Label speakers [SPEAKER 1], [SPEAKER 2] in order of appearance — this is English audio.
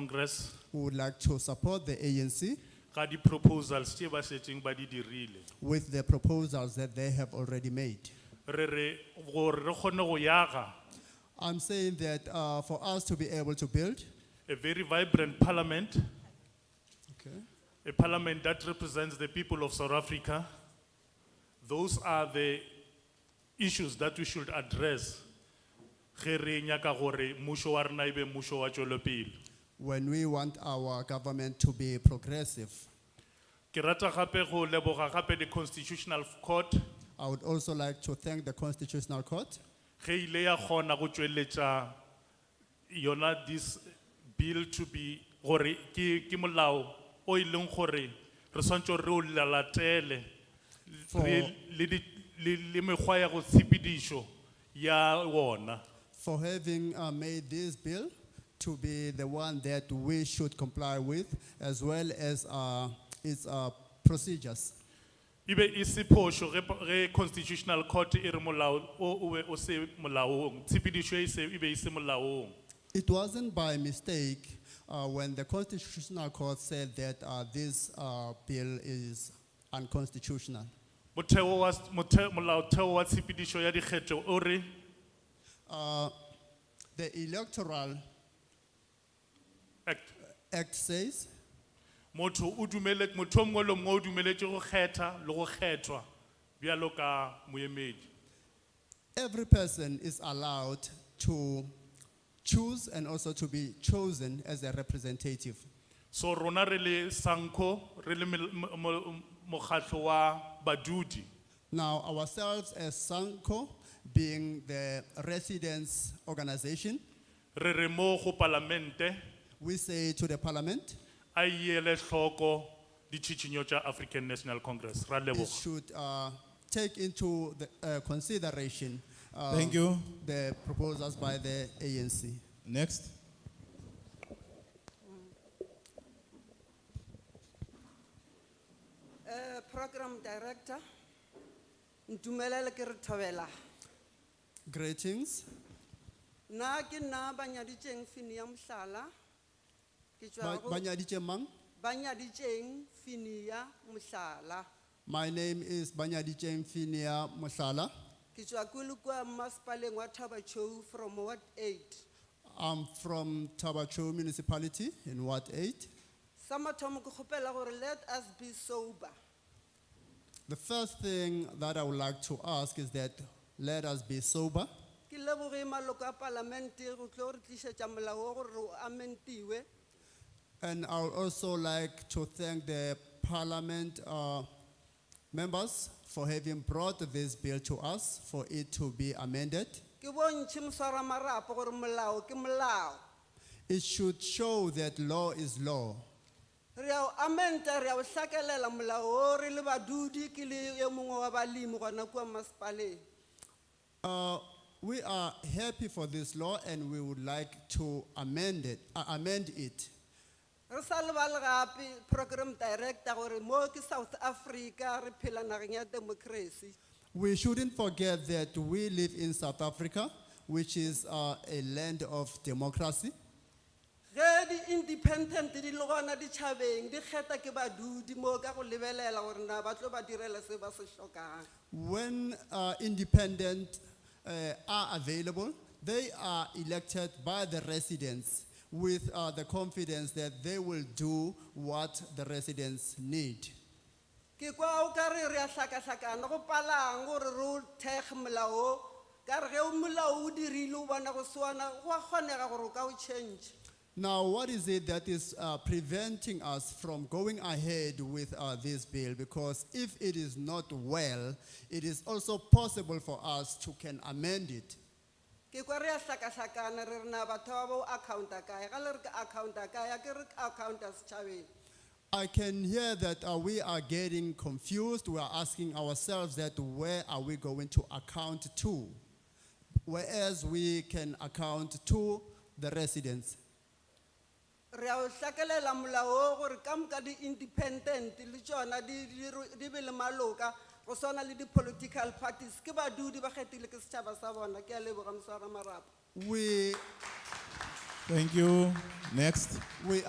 [SPEAKER 1] Congress,
[SPEAKER 2] We would like to support the ANC
[SPEAKER 1] ka di proposals tse ba setseng ba di dirile.
[SPEAKER 2] with the proposals that they have already made.
[SPEAKER 1] Re re, gore re kgone go yaga
[SPEAKER 2] I'm saying that uh, for us to be able to build
[SPEAKER 1] a very vibrant parliament,
[SPEAKER 2] okay.
[SPEAKER 1] a parliament that represents the people of South Africa. Those are the issues that we should address. Ge re nyaka gore mmušo wa rena e be mmušo wa tšwelopele.
[SPEAKER 2] when we want our government to be progressive,
[SPEAKER 1] Ke rata gape go leboga gape the constitutional court
[SPEAKER 2] I would also like to thank the Constitutional Court
[SPEAKER 1] ge ile ya kgona go tšweletša yona this bill to be gore ke ke molao o e leng gore re swantse re o lalatele
[SPEAKER 2] For-
[SPEAKER 1] re- le di- le- le mekgwa ya go tshepedišo ya wona
[SPEAKER 2] for having uh, made this bill to be the one that we should comply with, as well as uh, its uh, procedures.
[SPEAKER 1] e be e se phošo ge po- ge constitutional court e re molao o o be o se molaong tshepedišo e se- e be e se molaong
[SPEAKER 2] It wasn't by mistake uh, when the Constitutional Court said that uh, this uh, bill is unconstitutional.
[SPEAKER 1] motheo wa s- mothe- molaotheo wa tshepedišo ya dikgetho o re
[SPEAKER 2] Uh, the Electoral
[SPEAKER 1] act
[SPEAKER 2] Act says
[SPEAKER 1] motho o dumele motho o mongwe le o mongwe o dumeletse go kgetha le go kgethwa bjalo ka moemedi
[SPEAKER 2] every person is allowed to choose and also to be chosen as a representative.
[SPEAKER 1] so rona re le sanco re le mel- mo- mo- mokgatlho wa badudi
[SPEAKER 2] Now, ourselves as SANCO, being the residents organization,
[SPEAKER 1] re re mo go palamente
[SPEAKER 2] we say to the parliament,
[SPEAKER 1] a ele tlhoko ditšhitšhinyo tša african national congress ra
[SPEAKER 2] it
[SPEAKER 1] leboga
[SPEAKER 2] should uh, take into the, uh, consideration uh,
[SPEAKER 3] Thank you.
[SPEAKER 2] the proposals by the ANC.
[SPEAKER 3] Next.
[SPEAKER 4] Eh, Program Director, ntumelele ke re thobela.
[SPEAKER 2] Greetings.
[SPEAKER 4] Na ke na banyaditjeng fini ya mhlala.
[SPEAKER 2] Ba-
[SPEAKER 4] Ke tswa go
[SPEAKER 2] Banyaditje Mang.
[SPEAKER 4] banyaditjeng fini ya mhlala.
[SPEAKER 2] My name is Banyaditje Mfinia Musala.
[SPEAKER 4] Ke tswa kulukwa masipaleng wa Thabachou from Ward 8.
[SPEAKER 2] I'm from Tabacho Municipality in Ward 8.
[SPEAKER 4] Sa mathomo ke kgopela gore let us be sober.
[SPEAKER 2] The first thing that I would like to ask is that let us be sober.
[SPEAKER 4] Ke leboge maloko a parlamente go tlo re tlisetsa molao o gore o amentiwe.
[SPEAKER 2] And I would also like to thank the parliament uh, members for having brought this bill to us for it to be amended.
[SPEAKER 4] Ke bontšhe mswara marapo gore molao ke molao.
[SPEAKER 2] It should show that law is law.
[SPEAKER 4] re a o amenta re a o hlakelela molao o re le badudi ke le e mongwe wa balemi gona kua masepaleng
[SPEAKER 2] Uh, we are happy for this law and we would like to amend it, uh, amend it.
[SPEAKER 4] re sa lebale gape program director gore mo ke south africa re phela nageng ya democracy
[SPEAKER 2] We shouldn't forget that we live in South Africa, which is uh, a land of democracy.
[SPEAKER 4] ge di-independent di le gona ditšhabeng di kgetha ke badudi moo ka go lebelela gore na ba tlo ba direla se ba se tlhokang
[SPEAKER 2] When uh, independent uh, are available, they are elected by the residents with uh, the confidence that they will do what the residents need.
[SPEAKER 4] ke kwa o ka re re a hlakahlakana go palang gore re o thekge molao o ka re ge o molao o dirile o bona go sewana go a kgonega gore o ka o change
[SPEAKER 2] Now, what is it that is uh, preventing us from going ahead with uh, this bill? Because if it is not well, it is also possible for us to can amend it.
[SPEAKER 4] ke kwa re a hlakahlakana re re na batho ba bo accounta kae ga le re ke accounta kae a ke re ke accounta setšhabeng
[SPEAKER 2] I can hear that uh, we are getting confused. We are asking ourselves that where are we going to account to? Whereas we can account to the residents.
[SPEAKER 4] re a o hlakelela molao o gore ka moka di-independent le tsona di- di ro- di be le maloka go swana le di-political parties ke badudi ba kgethile ke setšhaba sa bona ke a leboga moswara marapo
[SPEAKER 2] We,
[SPEAKER 3] Thank you. Next.
[SPEAKER 2] We